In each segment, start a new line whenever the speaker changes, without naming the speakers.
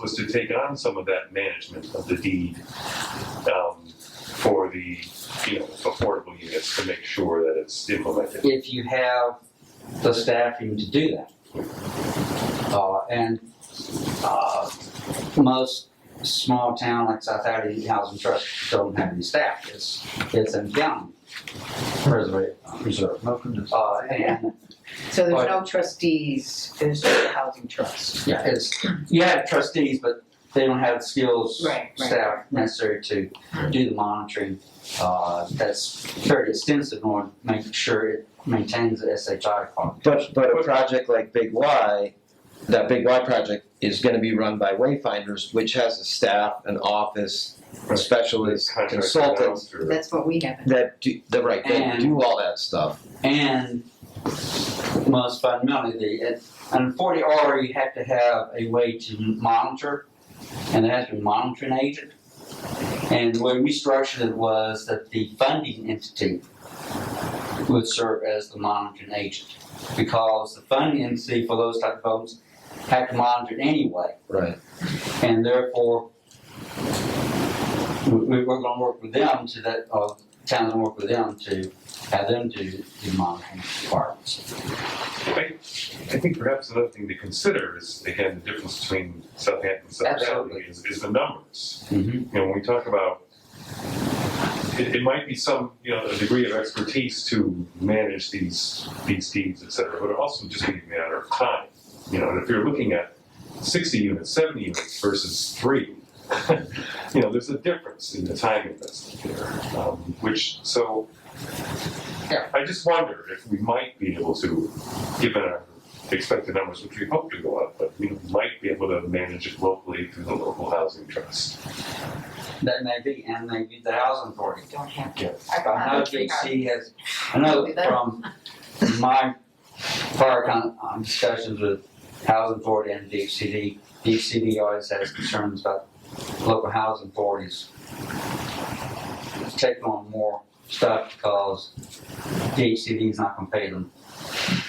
was to take on some of that management of the deed um, for the, you know, affordable units to make sure that it's implemented.
if you have the staffing to do that. Uh, and, uh, most small town like South Hattie Housing Trust don't have any staff, it's, it's a county preserve, preserve. Uh, and,
So there's no trustees, there's just a housing trust.
yeah, it's, you have trustees, but they don't have the skills,
Right, right,
staff
right.
necessary to do the monitoring. Uh, that's very extensive, on making sure it maintains the SHI part.
But, but a project like Big Y, that Big Y project is gonna be run by Wayfinders, which has a staff, an office,
Right.
specialists,
Contract
consultants,
announced or-
That's what we have.
that do, the right, they
And-
do all that stuff.
and most fundamentally, the, under forty R, you have to have a way to monitor, and there has to be a monitoring agent. And the way we structured it was that the funding entity would serve as the monitoring agent, because the funding entity for those type of loans had to monitor it anyway,
Right.
and therefore, we, we- we're gonna work with them to that, uh, towns will work with them to have them do the monitoring requirements.
I I think perhaps another thing to consider is, again, the difference between Southampton and South
Absolutely.
Hadley is, is the numbers.
Mhm.
You know, when we talk about, it, it might be some, you know, a degree of expertise to manage these, these deeds, et cetera, but it also just be a matter of time. You know, and if you're looking at sixty units, seventy units versus three, you know, there's a difference in the time investment there, um, which, so,
Yeah.
I just wonder if we might be able to, given our expected numbers, which we hope to go up, but we might be able to manage it locally through the local housing trust.
That may be, and maybe the housing authority.
Don't have to.
Yeah.
I know JC has, I know from my prior con, um, discussions with housing authority and DCD, DCD always has concerns about local housing authorities taking on more stuff because DHCD is not gonna pay them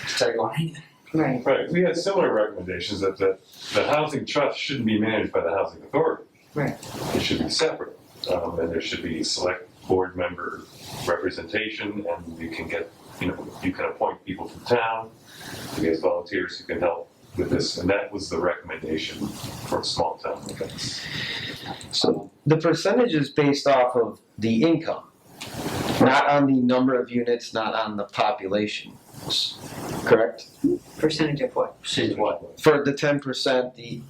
to take on anything.
Right,
Right, we had similar recommendations that the, the housing trust shouldn't be managed by the housing authority.
Right.
It should be separate, um, and there should be select board member representation, and you can get, you know, you can appoint people from town, you get volunteers who can help with this, and that was the recommendation for small town events.
So the percentage is based off of the income, not on the number of units, not on the population, correct?
percentage of what?
She's what,
For the ten percent, the,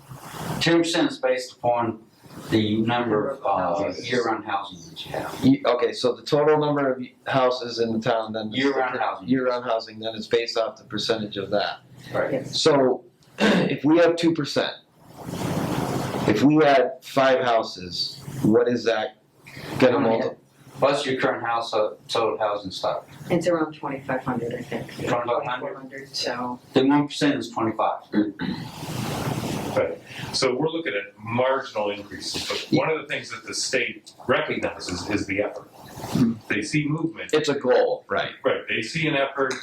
ten percent is based upon the number of, uh,
Houses.
year-round housing that you have.
you- okay, so the total number of houses in the town, then.
Year-round housing.
Year-round housing, then it's based off the percentage of that.
Right.
Yes.
So, if we have two percent, if we had five houses, what is that gonna multiply?
What's your current house, uh, total housing stock?
It's around twenty-five hundred, I think.
2,500?
Twenty-four hundred, so,
The one percent is twenty-five.
So we're looking at marginal increases, but one of the things that the state recognizes is the effort. They see movement,
It's a goal, right?
right, they see an effort,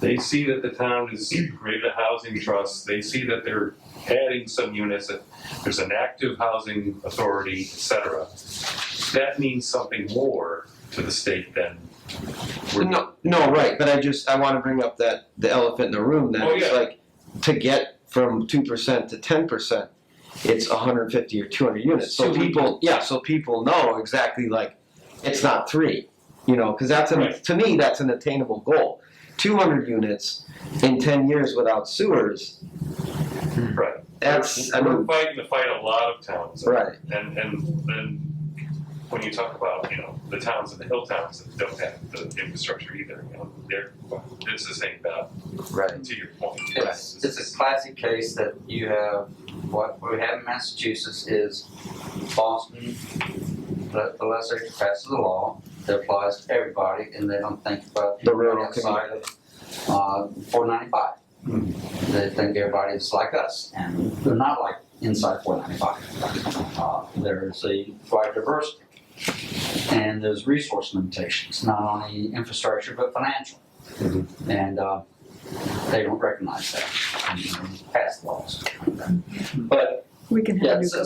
they see that the town has created a housing trust, they see that they're adding some units, that there's an active housing authority, et cetera. That means something more to the state than we're.
No, no, right, but I just, I wanna bring up that, the elephant in the room, that
Oh,
it's
yeah.
like, to get from two percent to ten percent, it's hundred and fifty or two hundred units, so
200.
people, yeah, so people know exactly like, it's not three, you know, cause that's, an
Right.
to me, that's an attainable goal. Two hundred units in ten years without sewers,
Right.
that's, I
We're
mean,
fighting the fight a lot of towns.
right,
And, and then when you talk about, you know, the towns and the hill towns that don't have the infrastructure either, you know, they're, it's the same battle,
right.
to your point.
It's, it's a classic case that you have, what we have in Massachusetts is Boston, the the lesser passes a law that applies to everybody and they don't think about.
The rural
Outside of, uh, four ninety-five. They think everybody's like us and they're not like inside four ninety-five. Uh, There's a wide diversity. And there's resource limitations, not only infrastructure but financial. And, uh, they don't recognize that, and, you know, pass laws. But
we can
Yeah,
have new
so-